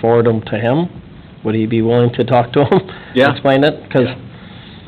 forward them to him? Would he be willing to talk to him? Yeah. Explain it, 'cause Yeah.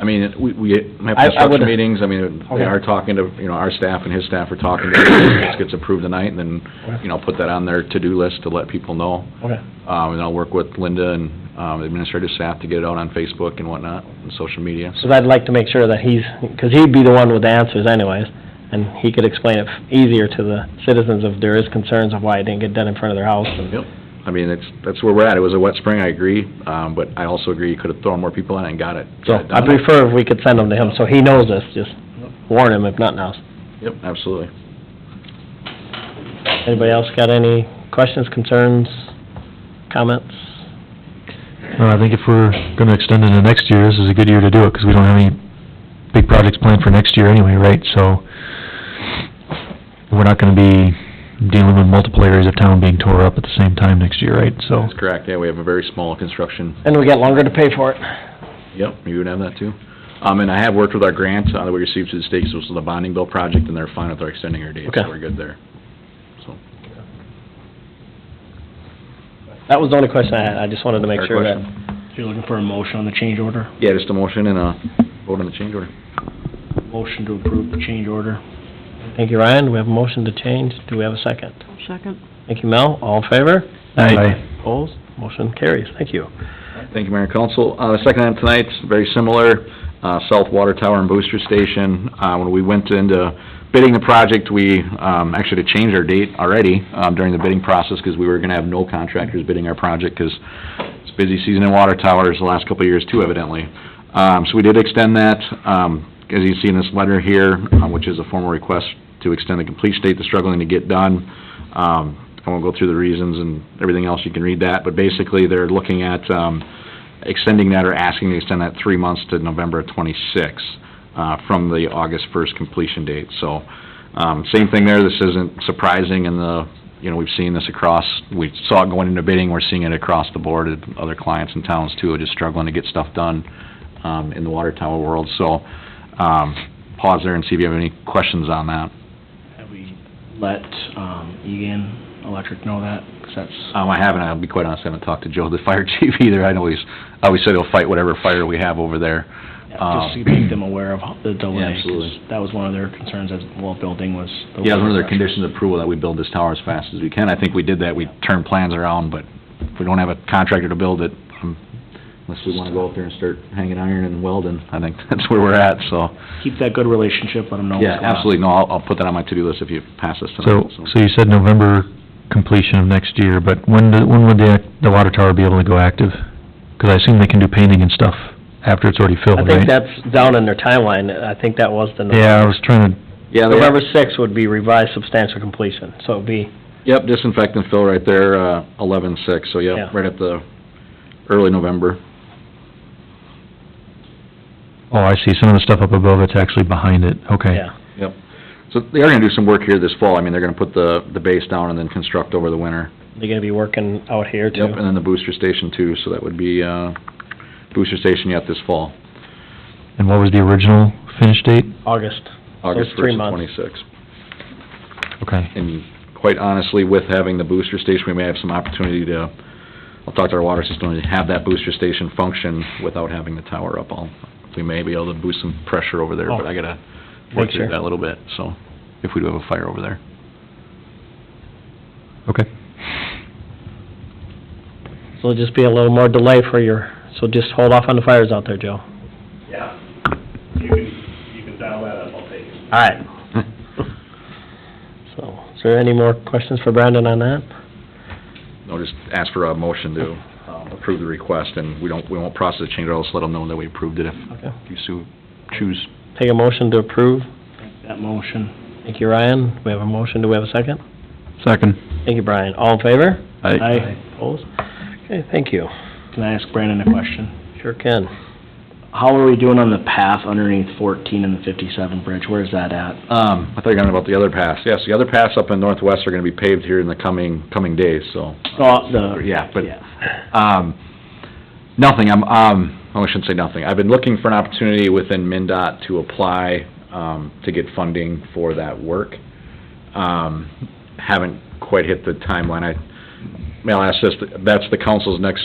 I mean, we, we have I- I construction would- meetings, I mean, Okay. they are talking to, you know, our staff and his staff are talking to, if this gets approved tonight, and then, you know, put that on their to-do list to let people know. Okay. Um, and I'll work with Linda and, um, the administrative staff to get it out on Facebook and whatnot, and social media. Because I'd like to make sure that he's, because he'd be the one with the answers anyways, and he could explain it easier to the citizens if there is concerns of why it didn't get done in front of their house. and- Yep. I mean, it's, that's where we're at. It was a wet spring, I agree, um, but I also agree you could have thrown more people on it and got it. So got it I done. prefer if we could send them to him, so he knows this, just warn him if nothing else. Yep, absolutely. Anybody else got any questions, concerns, comments? No, I think if we're gonna extend into next year, this is a good year to do it, 'cause we don't have any big projects planned for next year anyway, right? So, we're not gonna be dealing with multiple areas of town being tore up at the same time next year, right? So, That's correct, yeah, we have a very small construction And we got longer to pay for it. Yep, you would have that too. Um, and I have worked with our grant uh, that we received through the state, so this is the bonding bill project, and they're fine with our extending our date, so Okay. we're good there. So, That was the only question I had, I just wanted to make fair sure that. question. You're looking for a motion on the change order? Yeah, just a motion and a vote on the change order. Motion to approve the change order. Thank you, Ryan, we have a motion to change, do we have a second? Second. Thank you, Mel, all in favor? Aye. Aye. Opposed, motion carries, thank you. Thank you, Mayor and Council. Uh, the second item tonight's very similar, uh, South Water Tower and Booster Station. Uh, when we went into bidding the project, we, um, actually had to change our date already, um, during the bidding process, because we were gonna have no contractors bidding our project, because it's busy season in water towers the last couple of years too evidently. Um, so we did extend that, um, as you see in this letter here, uh, which is a formal request to extend the complete state that's struggling to get done. Um, I won't go through the reasons and everything else, you can read that, but basically, they're looking at, um, extending that or asking to extend that three months to November 26, uh, from the August 1st completion date. So, um, same thing there, this isn't surprising in the, you know, we've seen this across, we saw it going into bidding, we're seeing it across the board, at other clients and towns too, are just struggling to get stuff done um, in the water tower world. So, um, pause there and see if you have any questions on that. Have we let, um, Egan Electric know that? 'Cause that's, Um, I haven't, I'll be quite honest, I haven't talked to Joe, the fire chief either. I always, I always said he'll fight whatever fire we have over there. Um, just to make them aware of the delay. 'cause absolutely. That was one of their concerns as well building was. the Yeah, it was one of water their pressure. conditions of approval that we build this tower as fast as we can. I think we did that, we turned plans around, but if we don't have a contractor to build it, um, unless we wanna go out there and start hanging iron and welding, I think that's where we're at, so. Keep that good relationship, let them know what's Yeah, going on. absolutely, no, I'll, I'll put that on my to-do list if you pass this tonight. so, so you said November completion of next year, but when, the- when would the, the water tower be able to go active? 'Cause I assume they can do painting and stuff after it's already filled, I right? think that's down in their timeline, I think that was the. Yeah, I was trying to, Yeah, they- November sixth would be revised substantial completion, so it'd be, Yep, disinfect and fill right there, uh, eleven-six, so Yeah. yeah, right at the early November. oh, I see, some of the stuff up above, it's actually behind it, okay. yeah. Yep. So they are gonna do some work here this fall, I mean, they're gonna put the, the base down and then construct over the winter. They're gonna be working out here too. Yep, and then the booster station too, so that would be, uh, booster station yet this fall, And what was the original finish date? August. August it's three first and months. twenty-six. Okay. And quite honestly, with having the booster station, we may have some opportunity to, I'll talk to our water system, to have that booster station function without having the tower up. I'll, we may be able to boost some pressure over there, Oh. but I gotta work Make through sure. that a little bit, so, if we do have a fire over there. Okay. So it'll just be a little more delay for your, so just hold off on the fires out there, Joe. Yeah, you can, you can dial that up, I'll take it. All right. So, is there any more questions for Brandon on that? I'll just ask for a motion to um, approve the request, and we don't, we won't process the change, or else let them know that we approved it if Okay. you so choose. Take a motion to approve. That motion. Thank you, Ryan. We have a motion. Do we have a second? Second. Thank you, Brian. All in favor? Aye. Opposed? Okay, thank you. Can I ask Brandon a question? Sure can. How are we doing on the path underneath fourteen and the fifty-seven bridge? Where's that at? Um, I thought you were talking about the other pass. Yes, the other pass up in Northwest are gonna be paved here in the coming, coming days, so. Oh, the. Uh, Yeah, but, um, nothing, I'm, um, oh, I shouldn't say nothing. I've been looking for an opportunity within MinDOT to apply, um, to get funding for that work. Um, haven't quite hit the timeline. I may I ask this, that's the council's next